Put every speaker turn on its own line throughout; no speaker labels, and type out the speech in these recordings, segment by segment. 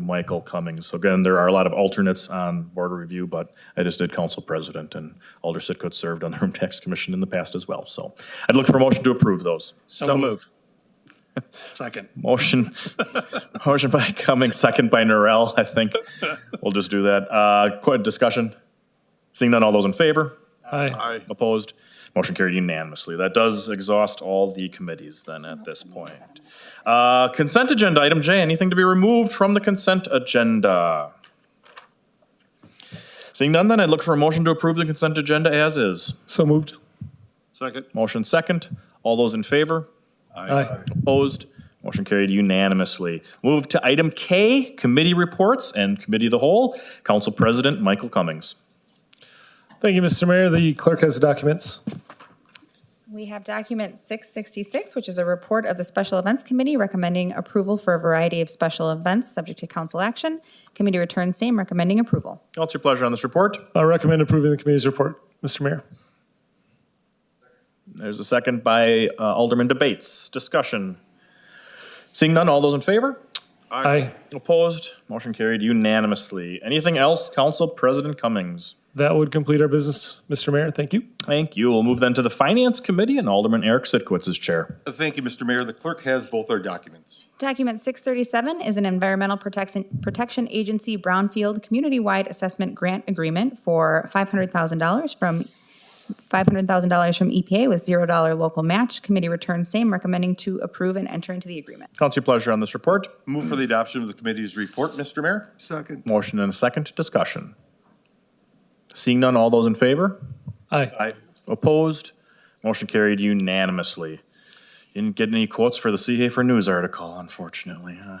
Michael Cummings. So again, there are a lot of alternates on board of review, but I just did council president, and Alder Sitcut served on the Room Tax Commission in the past as well. So I'd look for a motion to approve those.
So moved. Second.
Motion, motion by Cummings, second by Norrell, I think. We'll just do that. Uh, Quick discussion. Seeing none, all those in favor?
Aye.
Opposed? Motion carried unanimously. That does exhaust all the committees then at this point. Uh, Consent agenda, item J, anything to be removed from the consent agenda? Seeing none, then I'd look for a motion to approve the consent agenda as is.
So moved.
Second.
Motion second. All those in favor?
Aye.
Opposed? Motion carried unanimously. Move to item K, committee reports and committee of the whole. Council President Michael Cummings.
Thank you, Mr. Mayor. The clerk has the documents.
We have document 666, which is a report of the Special Events Committee recommending approval for a variety of special events subject to council action. Committee returns same recommending approval.
What's your pleasure on this report?
I recommend approving the committee's report, Mr. Mayor.
There's a second by uh, Alderman Debates. Discussion. Seeing none, all those in favor?
Aye.
Opposed? Motion carried unanimously. Anything else, Council President Cummings?
That would complete our business, Mr. Mayor. Thank you.
Thank you. We'll move then to the Finance Committee and Alderman Eric Sitkowitz is chair.
Uh, Thank you, Mr. Mayor. The clerk has both our documents.
Document 637 is an Environmental Protection Protection Agency Brownfield Community-Wide Assessment Grant Agreement for $500,000 from, $500,000 from EPA with $0 local match. Committee returns same recommending to approve and enter into the agreement.
Council, your pleasure on this report?
Move for the adoption of the committee's report, Mr. Mayor.
Second.
Motion and a second. Discussion. Seeing none, all those in favor?
Aye.
Aye.
Opposed? Motion carried unanimously. Didn't get any quotes for the CA for News article, unfortunately. huh?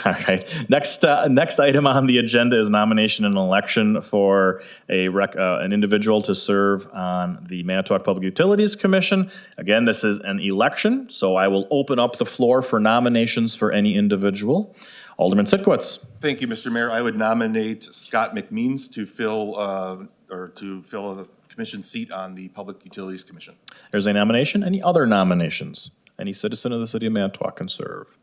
All right. Next, uh, next item on the agenda is nomination and election for a rec, uh, an individual to serve on the Manitowoc Public Utilities Commission. Again, this is an election, so I will open up the floor for nominations for any individual. Alderman Sitkowitz.
Thank you, Mr. Mayor. I would nominate Scott McMeans to fill, uh, or to fill a commission seat on the Public Utilities Commission.
There's a nomination. Any other nominations? Any citizen of the city of Manitowoc can serve.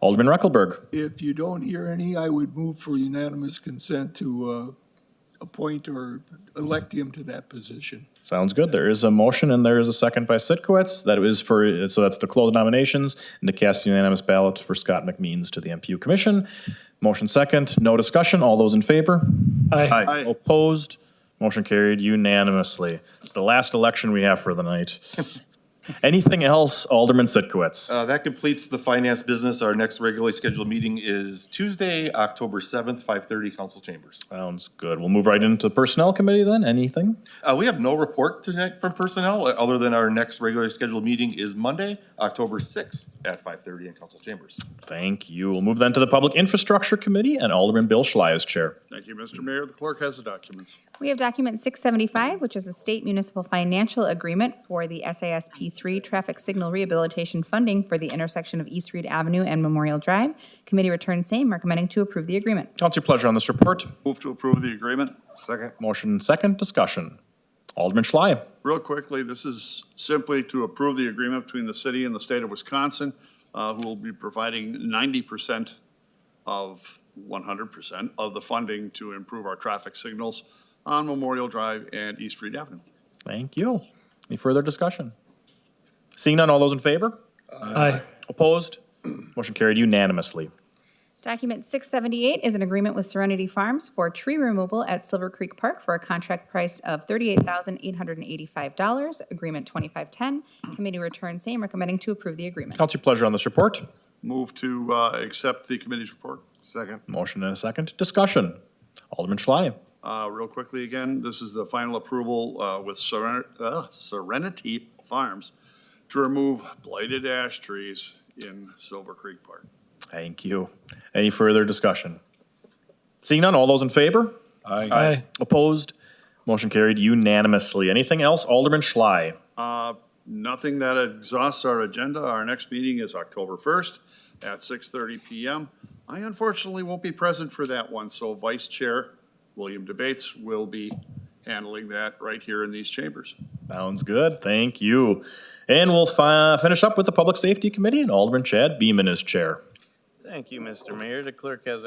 Alderman Reckelberg.
If you don't hear any, I would move for unanimous consent to uh, appoint or elect him to that position.
Sounds good. There is a motion and there is a second by Sitkowitz. That is for, so that's to close nominations and to cast unanimous ballots for Scott McMeans to the MPU Commission. Motion second, no discussion. All those in favor?
Aye.
Aye.
Opposed? Motion carried unanimously. It's the last election we have for the night. Anything else, Alderman Sitkowitz?
Uh, That completes the finance business. Our next regularly scheduled meeting is Tuesday, October 7th, 5:30, Council Chambers.
Sounds good. We'll move right into the Personnel Committee then. Anything?
Uh, We have no report tonight from personnel, uh, other than our next regularly scheduled meeting is Monday, October 6th at 5:30 in Council Chambers.
Thank you. We'll move then to the Public Infrastructure Committee and Alderman Bill Schley is chair.
Thank you, Mr. Mayor. The clerk has the documents.
We have document 675, which is a state municipal financial agreement for the SASP 3 traffic signal rehabilitation funding for the intersection of East Reed Avenue and Memorial Drive. Committee returns same, recommending to approve the agreement.
What's your pleasure on this report?
Move to approve the agreement.
Second.
Motion second, discussion. Alderman Schley.
Real quickly, this is simply to approve the agreement between the city and the state of Wisconsin, uh, who will be providing ninety percent of, one hundred percent of the funding to improve our traffic signals on Memorial Drive and East Reed Avenue.
Thank you. Any further discussion? Seeing none, all those in favor?
Aye.
Opposed? Motion carried unanimously.
Document 678 is an agreement with Serenity Farms for tree removal at Silver Creek Park for a contract price of $38,885, agreement 2510. Committee returns same, recommending to approve the agreement.
What's your pleasure on this report?
Move to, uh, accept the committee's report.
Second.
Motion and a second, discussion. Alderman Schley.
Uh, Real quickly again, this is the final approval uh, with Seren- uh, Serenity Farms to remove blighted ash trees in Silver Creek Park.
Thank you. Any further discussion? Seeing none, all those in favor?
Aye.
Opposed? Motion carried unanimously. Anything else, Alderman Schley?
Nothing that exhausts our agenda. Our next meeting is October 1st at 6:30 PM. I unfortunately won't be present for that one, so Vice Chair William Debates will be handling that right here in these chambers.
Sounds good. Thank you. And we'll fi- finish up with the Public Safety Committee and Alderman Chad Beaman is chair.
Thank you, Mr. Mayor. The clerk has our